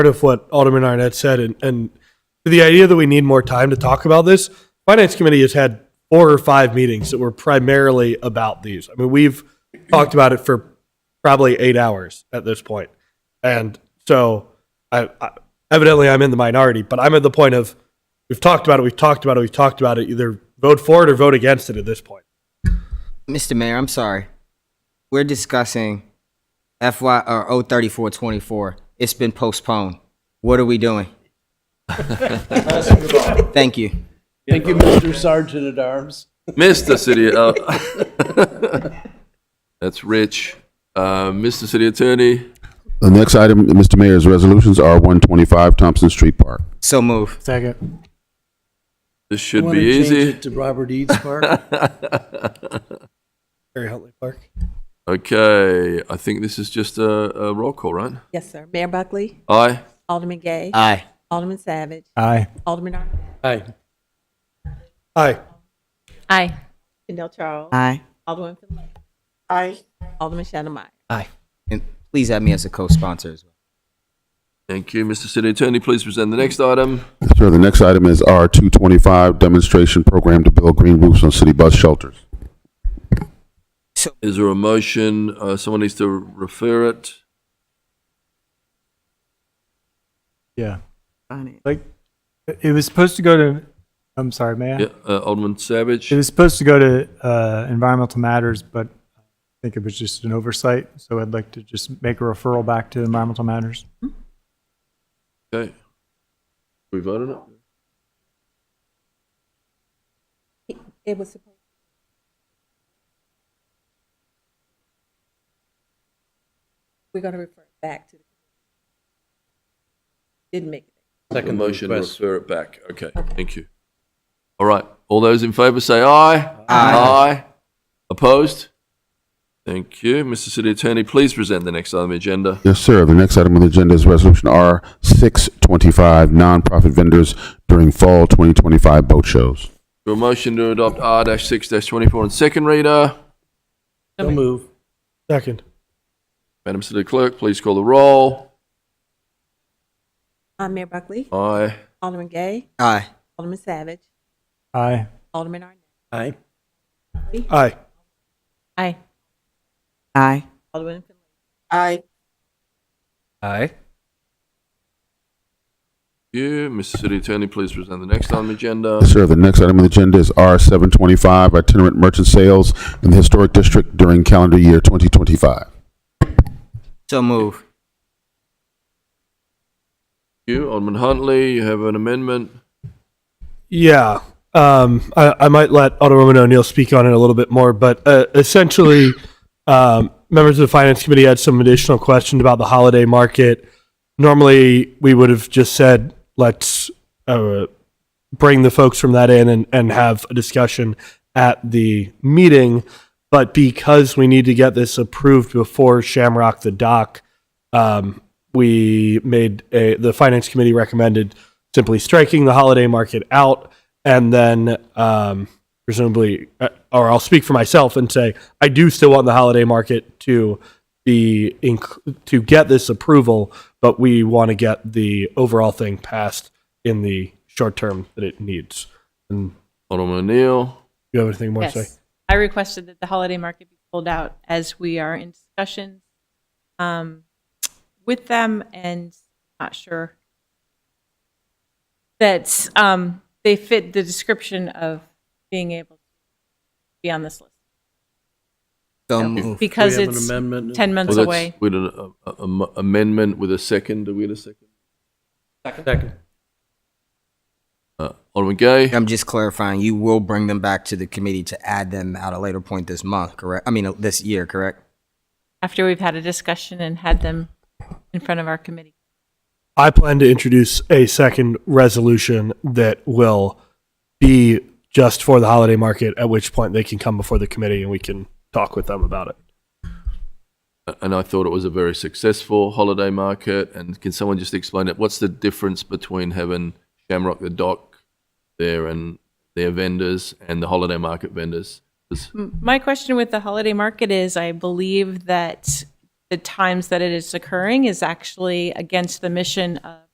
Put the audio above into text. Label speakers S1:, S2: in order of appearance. S1: part of what Alderman Arnett said, and, and the idea that we need more time to talk about this, Finance Committee has had four or five meetings that were primarily about these. I mean, we've talked about it for probably eight hours at this point. And so I, I evidently I'm in the minority, but I'm at the point of we've talked about it, we've talked about it, we've talked about it. Either vote for it or vote against it at this point.
S2: Mr. Mayor, I'm sorry. We're discussing FY or 03424. It's been postponed. What are we doing? Thank you.
S3: Thank you, Mr. Sergeant at Arms.
S4: Mr. City, uh, that's Rich. Uh, Mr. City Attorney,
S5: The next item, Mr. Mayor, is resolutions R one twenty-five Thompson Street Park.
S2: So move.
S4: this should be easy.
S3: To Robert Eads Park.
S1: Harry Huntley Park.
S4: Okay, I think this is just a, a roll call, right?
S6: Yes, sir. Mayor Buckley,
S4: Aye.
S6: Alderman Gay,
S2: Aye.
S6: Alderman Savage,
S1: Aye.
S6: Alderman Arnett,
S3: Aye.
S1: Aye.
S7: Aye.
S6: Chanel Charles,
S2: Aye.
S6: Alderman Phillips,
S8: Aye.
S6: Alderman Shannon Meyer.
S2: And please add me as a co-sponsor as well.
S4: Thank you, Mr. City Attorney. Please present the next item.
S5: Sir, the next item is R two twenty-five Demonstration Program to Build Green Roofs on City Bus Shelters.
S4: Is there a motion? Uh, someone needs to refer it.
S9: Yeah. Like, it- it was supposed to go to, I'm sorry, may I?
S4: Yeah, uh, Alderman Savage.
S9: It was supposed to go to uh, Environmental Matters, but I think it was just an oversight. So I'd like to just make a referral back to Environmental Matters.
S4: Okay. We vote on it?
S6: It was supposed. We're going to refer it back to. the Didn't make it.
S4: The
S3: Second
S4: motion to
S3: request.
S4: refer it back. Okay, thank you. All right, all those in favor say aye. Aye. Opposed? Thank you. Mr. City Attorney, please present the next item on the agenda.
S5: Yes, sir, the next item on the agenda is Resolution R six twenty-five Nonprofit Vendors During Fall twenty twenty-five Boat Shows.
S4: Your motion to adopt R six twenty-four on second reader.
S3: So move.
S1: Second.
S4: Madam City Clerk, please call the roll.
S6: I'm Mayor Buckley,
S4: Aye.
S6: Alderman Gay,
S2: Aye.
S6: Alderman Savage,
S9: Aye.
S6: Alderman Arnett,
S3: Aye.
S1: Aye.
S7: Aye.
S2: Aye.
S6: Alderman Phillips,
S8: Aye.
S2: Aye.
S4: You, Mr. City Attorney, please present the next item on the agenda.
S5: Yes, sir, the next item on the agenda is R seven twenty-five Itinerant Merchant Sales in the Historic District During Calendar Year twenty twenty-five.
S2: So move.
S4: You, Alderman Huntley, you have an amendment.
S1: Yeah. Um, I, I might let Alderwoman O'Neill speak on it a little bit more, but uh, essentially, um, members of the Finance Committee had some additional questions about the holiday market. Normally, we would have just said, let's uh, bring the folks from that in and, and have a discussion at the meeting. But because we need to get this approved before Shamrock the Dock, um, we made a, the finance committee recommended simply striking the holiday market out and then um, presumably uh, or i'll speak for myself and say i do still want the holiday market to be inc- to get this approval but we want to get the overall thing passed in the short term that it needs and
S4: Alderman O'Neill.
S1: you have anything more to say
S7: Yes. I requested that the holiday market be pulled out as we are in discussions um, with them and not sure that um, they fit the description of being able to be on this list
S2: So move.
S7: because
S3: We have an
S7: it's
S3: amendment.
S7: 10 months
S4: Well, that's
S7: away.
S4: With an uh, uh, am- amendment with a second, do we have a second?
S3: Second.
S4: Uh, Alderman Gay,
S2: I'm just clarifying, you will bring them back to the committee to add them at a later point this month, correct? I mean, uh, this year, correct?
S7: After we've had a discussion and had them in front of our committee.
S1: I plan to introduce a second resolution that will be just for the holiday market, at which point they can come before the committee and we can talk with them about it.
S4: and I thought it was a very successful holiday market, and can someone just explain it? What's the difference between having Shamrock the Dock there and their vendors and the holiday market vendors? 'Cause
S7: M- My question with the holiday market is I believe that the times that it is occurring is actually against the mission of